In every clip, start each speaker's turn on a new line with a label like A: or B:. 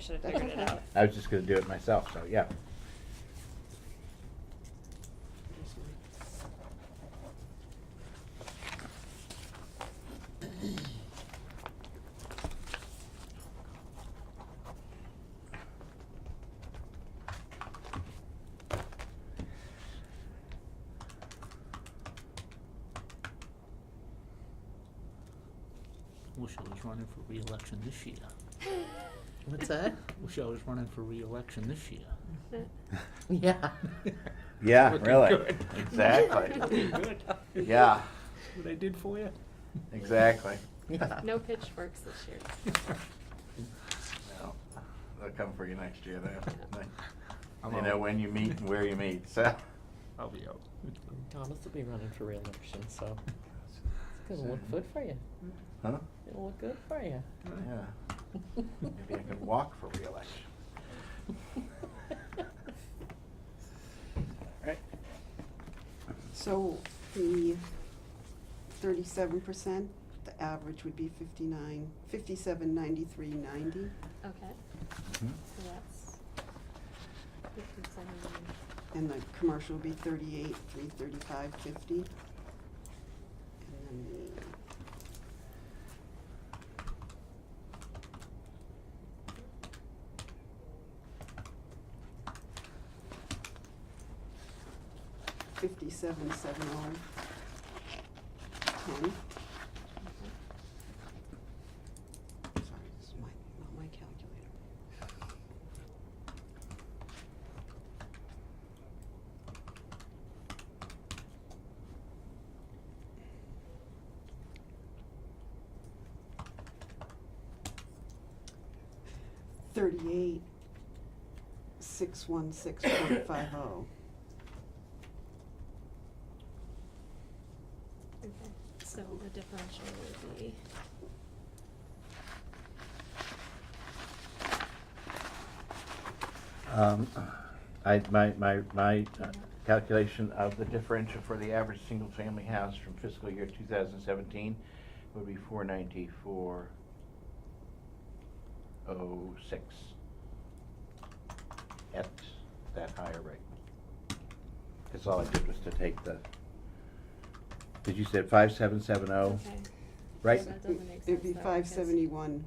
A: should have figured it
B: okay.
A: out.
C: I was just gonna do it myself, so yeah.
D: Wish I was running for reelection this year.
B: What's that?
D: Wish I was running for reelection this year.
B: Yeah.
C: Yeah,
D: Looking
C: really.
D: good.
C: Exactly.
D: Looking good.
C: Yeah,
D: What I did for you.
C: exactly.
B: Yeah.
A: No pitchforks this year.
C: No, They'll come for you next year, though.
D: I'm
C: You know
D: out.
C: when you meet and where you meet, so.
D: I'll be out.
B: Thomas will be running for reelection, so it's gonna look good for you.
D: Mm-hmm.
C: Huh?
B: It'll look good for you.
C: Yeah. Maybe I could walk for reelection. Right.
E: So the thirty-seven percent, the average would be fifty-nine, fifty-seven, ninety-three, ninety.
A: Okay,
C: Mm-hmm.
A: so that's fifty-seven.
E: And the commercial would be thirty-eight, three thirty-five, fifty. And then the. Fifty-seven, seven oh, ten. Sorry, this is my, not my calculator. thirty-eight, six one six point five oh,
A: Okay, so the differential would be.
C: Um, I, my, my, my uh, calculation of the differential for the average single-family house from fiscal year two thousand seventeen would be four ninety-four oh six at that higher rate. Cause all I did was to take the, did you say five seven seven oh,
A: Okay,
C: right?
A: That doesn't make
E: It'd
A: sense,
E: be
A: though,
E: five
A: because-
E: seventy-one,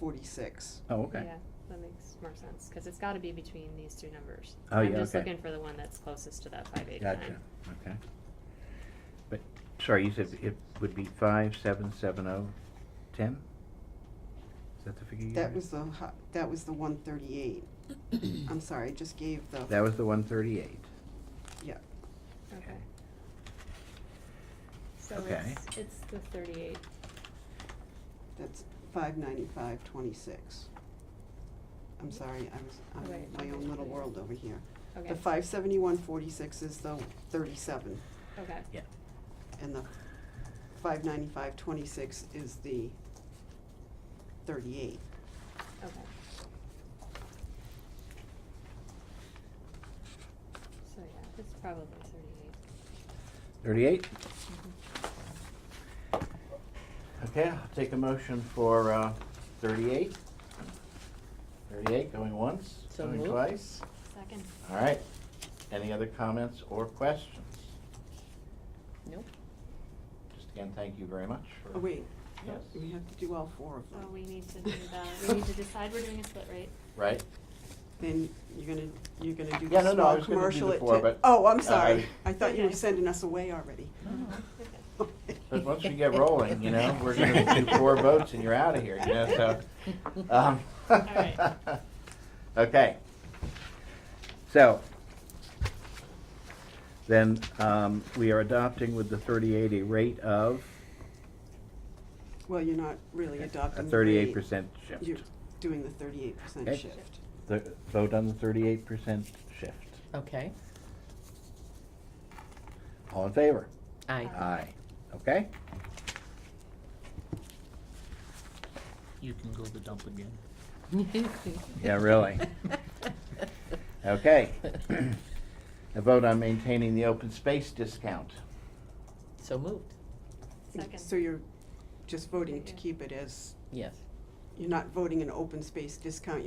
E: forty-six.
C: Oh, okay.
A: Yeah, that makes more sense, cause it's gotta be between these two numbers.
C: Oh, yeah,
A: I'm just
C: okay.
A: looking for the one that's closest to that five
C: Gotcha,
A: eighty-nine.
C: okay. But, sorry, you said it would be five, seven, seven, oh, ten? Is that the figure you
E: That
C: had?
E: was the hi- that was the one thirty-eight. I'm sorry, I just gave the,
C: That was the one thirty-eight.
E: yeah,
A: Okay. So
C: Okay.
A: it's, it's the thirty-eight,
E: that's five ninety-five, twenty-six. I'm sorry, I was, I'm in
A: Right,
E: my
A: okay.
E: own little world over here.
A: okay,
E: The five seventy-one, forty-six is the thirty-seven,
A: okay,
C: Yeah.
E: and the five ninety-five, twenty-six is the thirty-eight.
A: okay. So yeah, it's probably thirty-eight.
C: Thirty-eight?
A: Mhm.
C: Okay, I'll take a motion for, uh, thirty-eight. Thirty-eight, going once,
B: So
C: going
B: moved.
C: twice.
A: Second,
C: All right. Any other comments or questions?
B: Nope.
C: Just again, thank you very much for.
E: Oh, wait,
C: Yes,
E: we have to do all four of
A: so
E: them.
A: Oh, we need to do the, we need to decide we're doing a split rate.
C: right?
E: Then you're gonna, you're gonna do
C: Yeah, no,
E: the
C: no, I was
E: small
C: gonna do
E: commercial
C: the
E: at
C: four,
E: ten-
C: but,
E: Oh, I'm
C: uh,
E: sorry, I thought you were
A: Okay.
E: sending us away already.
A: Okay.
C: But once we get rolling, you know, we're gonna do four votes and you're out of here, you know, so. um,
A: Alright.
C: Okay. So, then, um, we are adopting with the thirty-eight a rate of
E: Well, you're not really
C: a
E: adopting the
C: thirty-eight
E: rate.
C: percent shift.
E: You're doing the thirty-eight percent
C: Okay.
E: shift.
C: Th- Vote on the thirty-eight percent shift.
B: Okay.
C: All in favor?
B: I.
C: Aye. Okay?
D: You can go to the dump again.
C: Yeah, really. Okay. A vote on maintaining the open space discount.
B: So moved.
A: Second.
E: So you're just voting to
A: Yeah.
E: keep it as
B: Yes.
E: you're not voting an open space discount, you're